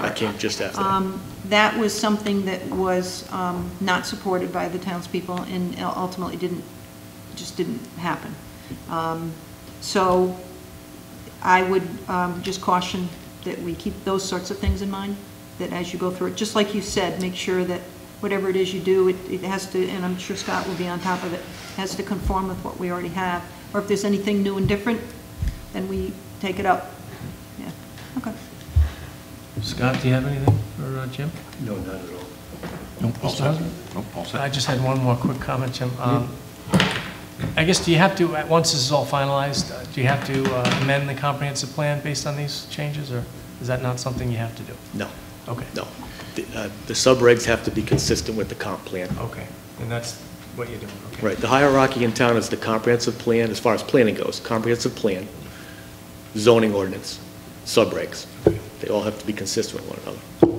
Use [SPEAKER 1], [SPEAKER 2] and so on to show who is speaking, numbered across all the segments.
[SPEAKER 1] I came just after that.
[SPEAKER 2] Um, That was something that was um, not supported by the townspeople and ultimately didn't, just didn't happen. Um, So I would um, just caution that we keep those sorts of things in mind, that as you go through it, just like you said, make sure that whatever it is you do, it it has to, and I'm sure Scott will be on top of it, has to conform with what we already have. Or if there's anything new and different, then we take it up. Yeah, okay.
[SPEAKER 3] Scott, do you have anything for uh, Jim?
[SPEAKER 4] No, not at all.
[SPEAKER 5] Nope, all set. Nope, all
[SPEAKER 3] I
[SPEAKER 5] set.
[SPEAKER 3] just had one more quick comment, Jim. Um, I guess, do you have to, uh, once this is all finalized, uh, do you have to uh, amend the comprehensive plan based on these changes, or is that not something you have to do?
[SPEAKER 1] No,
[SPEAKER 3] Okay,
[SPEAKER 1] no. The uh, the subregs have to be consistent with the comp plan.
[SPEAKER 3] okay, and that's what you're doing, okay.
[SPEAKER 1] Right, the hierarchy in town is the comprehensive plan, as far as planning goes, comprehensive plan, zoning ordinance, subregs. They all have to be consistent with one another.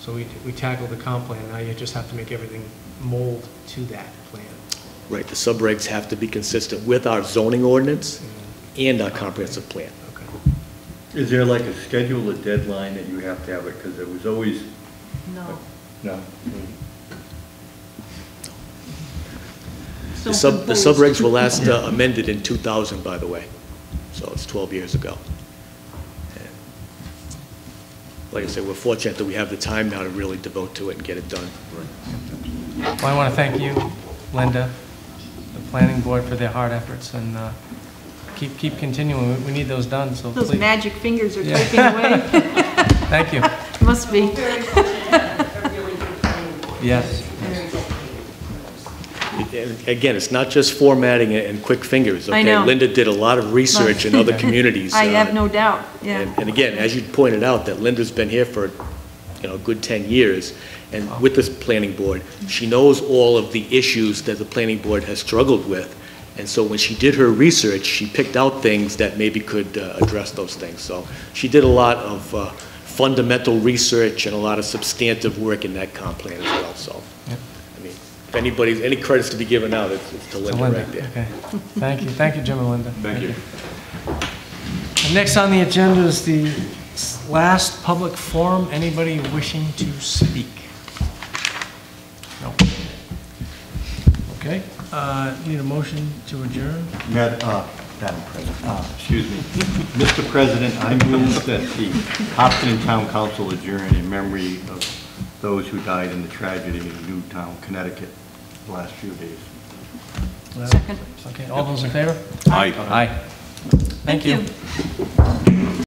[SPEAKER 3] So we we tackled the comp plan, now you just have to make everything mold to that plan.
[SPEAKER 1] Right, the subregs have to be consistent with our zoning ordinance and our comprehensive plan.
[SPEAKER 3] Okay.
[SPEAKER 4] Is there like a schedule, a deadline that you have to have it? Because there was always,
[SPEAKER 2] No.
[SPEAKER 4] no.
[SPEAKER 1] The sub, the subregs were last uh, amended in 2000, by the way, so it's 12 years ago. And Like I said, we're fortunate that we have the time now to really devote to it and get it done.
[SPEAKER 3] Well, I want to thank you, Linda, the planning board for their hard efforts, and uh, keep keep continuing, We- we need those done, so
[SPEAKER 2] Those
[SPEAKER 3] please,
[SPEAKER 2] magic fingers are
[SPEAKER 3] Yeah.
[SPEAKER 2] taken away,
[SPEAKER 3] thank you,
[SPEAKER 2] must be.
[SPEAKER 3] yes.
[SPEAKER 1] And Again, it's not just formatting and- and quick fingers, okay?
[SPEAKER 2] I know.
[SPEAKER 1] Linda did a lot of research in other communities.
[SPEAKER 2] I
[SPEAKER 1] uh,
[SPEAKER 2] have no doubt,
[SPEAKER 1] And
[SPEAKER 2] yeah.
[SPEAKER 1] and again, as you pointed out, that Linda's been here for, you know, a good 10 years, and with this planning board, she knows all of the issues that the planning board has struggled with, and so when she did her research, she picked out things that maybe could uh, address those things. So she did a lot of uh, fundamental research and a lot of substantive work in that comp plan as well, so.
[SPEAKER 3] Yep.
[SPEAKER 1] I mean, if anybody's, any credit's to be given out, it's it's to
[SPEAKER 3] To
[SPEAKER 1] Linda
[SPEAKER 3] Linda,
[SPEAKER 1] right there.
[SPEAKER 3] okay. Thank you, thank you, Jim and Linda.
[SPEAKER 4] Thank you.
[SPEAKER 3] And Next on the agenda is the s- last public forum, anybody wishing to speak? No. Okay, uh, need a motion to adjourn?
[SPEAKER 4] Madam, uh, Madam President, uh, excuse me. Mr. President, I move that the Hopkinton Town Council adjourn in memory of those who died in the tragedy in Newtown, Connecticut, the last few days.
[SPEAKER 2] Second.
[SPEAKER 3] Okay, all those in favor?
[SPEAKER 4] Aye.
[SPEAKER 3] Aye. Thank you.